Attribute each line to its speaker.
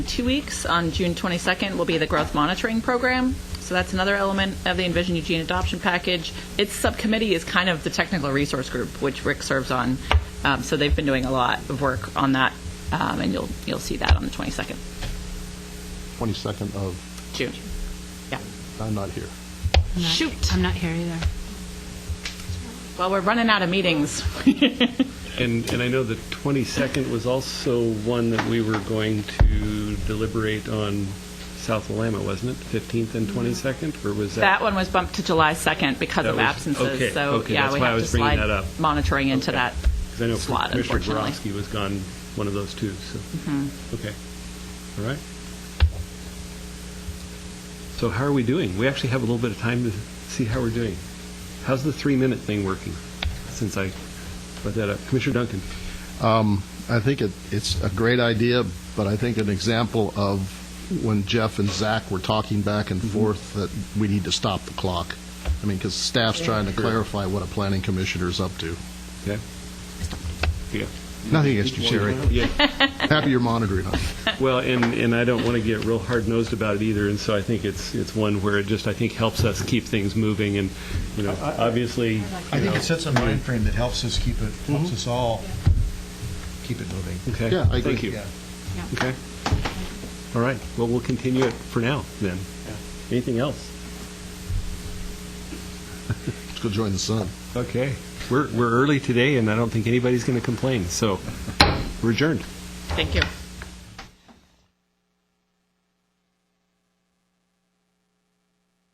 Speaker 1: two weeks, on June 22nd, will be the growth monitoring program. So that's another element of the Envision Eugene adoption package. Its subcommittee is kind of the technical resource group, which Rick serves on. Um, so they've been doing a lot of work on that, um, and you'll you'll see that on the 22nd
Speaker 2: 22nd of,
Speaker 1: June. Yeah.
Speaker 2: I'm not here.
Speaker 3: I'm not-
Speaker 1: Shoot.
Speaker 3: I'm not here either.
Speaker 1: Well, we're running out of meetings.
Speaker 4: And, and I know the 22nd was also one that we were going to deliberate on South Alamo, wasn't it? 15th and 22nd, or was
Speaker 1: Mm-hmm.
Speaker 4: that?
Speaker 1: That one was bumped to July 2nd because
Speaker 4: That
Speaker 1: of
Speaker 4: was-
Speaker 1: absences.
Speaker 4: okay,
Speaker 1: so
Speaker 4: okay,
Speaker 1: yeah,
Speaker 4: that's
Speaker 1: we
Speaker 4: why I
Speaker 1: have
Speaker 4: was
Speaker 1: to
Speaker 4: bringing
Speaker 1: slide
Speaker 4: that up.
Speaker 1: monitoring into
Speaker 4: Okay.
Speaker 1: that
Speaker 4: 'Cause I know
Speaker 1: slot,
Speaker 4: Commissioner
Speaker 1: unfortunately. Mm-hmm.
Speaker 4: Borowski was gone, one of those two, so. Okay, all right. So how are we doing? We actually have a little bit of time to see how we're doing. How's the three-minute thing working, since I brought that up? Commissioner Duncan?
Speaker 2: Um, I think it, it's a great idea, but I think an example of when Jeff and Zach were talking back and forth that we need to stop the clock. I mean, because staff's trying to clarify what a planning commissioner's up to.
Speaker 4: Okay. Yeah.
Speaker 2: Nothing against you, Sherry.
Speaker 4: Yeah.
Speaker 2: Happy you're monitoring us.
Speaker 4: Well, and, and I don't want to get real hard-nosed about it either, and so I think it's, it's one where it just, I think, helps us keep things moving, and, you know, obviously,
Speaker 5: I think it sets a mind frame that helps us keep it, helps us all keep it moving.
Speaker 4: okay.
Speaker 2: Yeah, I
Speaker 4: Thank
Speaker 2: agree.
Speaker 4: you.
Speaker 5: Yeah.
Speaker 3: Yeah.
Speaker 4: Okay. All right, well, we'll continue it for now, then. Anything else?
Speaker 2: Let's go join the sun.
Speaker 4: Okay. We're, we're early today, and I don't think anybody's going to complain, so we're adjourned.
Speaker 1: Thank you.